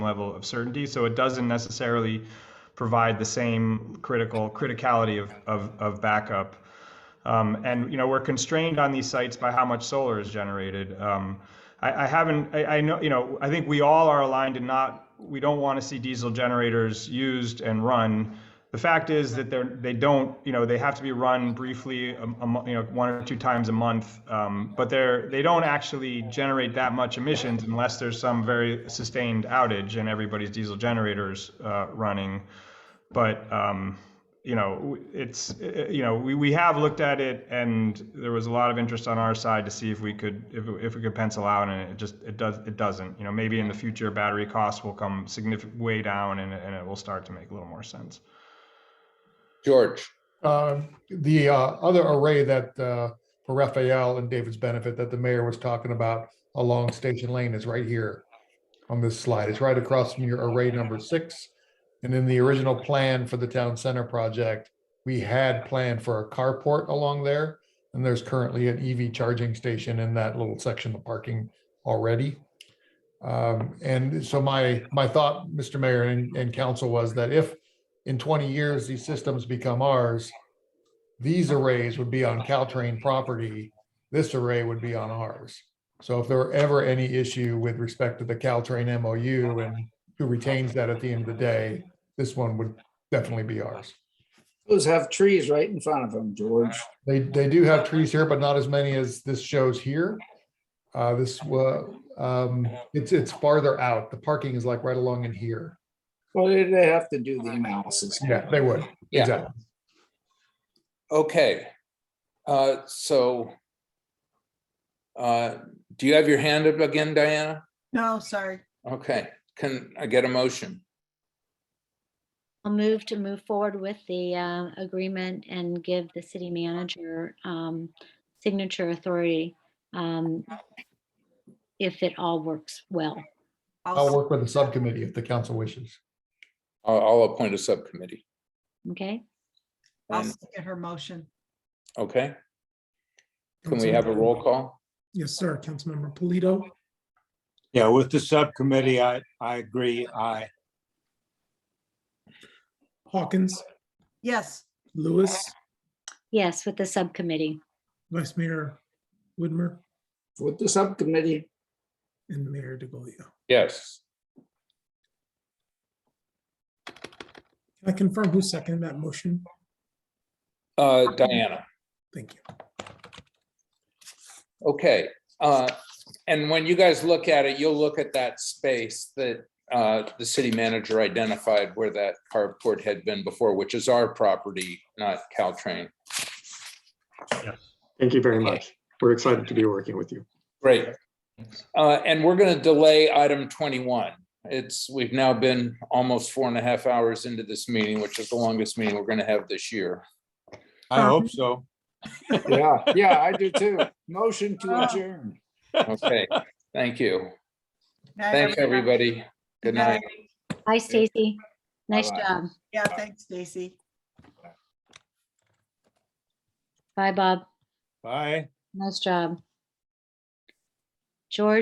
level of certainty. So it doesn't necessarily provide the same critical criticality of, of, of backup. Um, and you know we're constrained on these sites by how much solar is generated. Um, I, I haven't. I, I know. You know. I think we all are aligned in not. We don't want to see diesel generators used and run. The fact is that they're they don't. You know they have to be run briefly. um, A, a, mo- you know one or two times a month. Um, but they're they don't actually generate that much emissions unless there's some very sustained outage and everybody's diesel generators uh, running but um, you know, it's uh, you know, we, we have looked at it, and there was a lot of interest on our side to see if we could if, if we could pencil out, and it just it does it doesn't. You know, maybe in the future battery costs will come significant way down, and it- and it will start to make a little more sense. George, Uh, The uh, other array that, uh, for Raphael and David's benefit, that the mayor was talking about along Station Lane is right here on this slide. It's right across from your array number six. And in the original plan for the town center project, we had planned for a carport along there. And there's currently an EV charging station in that little section of parking already. Um, And so my, my thought, Mr. Mayor and, and council, was that if in 20 years, these systems become ours, these arrays would be on Caltrain property, this array would be on ours. So if there were ever any issue with respect to the Caltrain MOU and who retains that at the end of the day, this one would definitely be ours. Those have trees right in front of them, George. They, they do have trees here, but not as many as this shows here. Uh, this, wa- um, it's, it's farther out. The parking is like right along in here. Well, they they have to do the analysis. Yeah, they would. Yeah. Exactly. okay. Uh, so uh, do you have your hand up again, Diana? No, sorry. Okay, can I get a motion? I'll move to move forward with the uh, agreement and give the city manager um, signature authority um, if it all works well. I'll I'll, Oh, work with the subcommittee if the council wishes. I'll, I'll appoint a subcommittee. Okay? I'll And- second her motion. Okay, can we have a Councilmember- roll call? Yes, sir. Councilmember Polito, Yeah, with the subcommittee, I, I agree, I, Hawkins, Yes, Lewis, Yes, with the subcommittee. Vice Mayor Whitmer, With the subcommittee, and Mayor DeGolia. Yes, Can I confirm who seconded that motion? uh, Diana, Thank you. okay. Uh, and when you guys look at it, you'll look at that space that uh, the city manager identified where that carport had been before, which is our property, not Caltrain. Thank you very much. We're excited to be working with you. Great. Uh, And we're going to delay item 21. It's, we've now been almost four and a half hours into this meeting, which is the longest meeting we're going to have this year. I hope so. yeah, yeah, I do too. Motion to adjourn. Okay, thank you. Night, Thanks, everybody. Good night. Hi, Stacy. Nice Bye-bye. job. Yeah, thanks, Stacy. Bye, Bob. Bye. Nice job. George?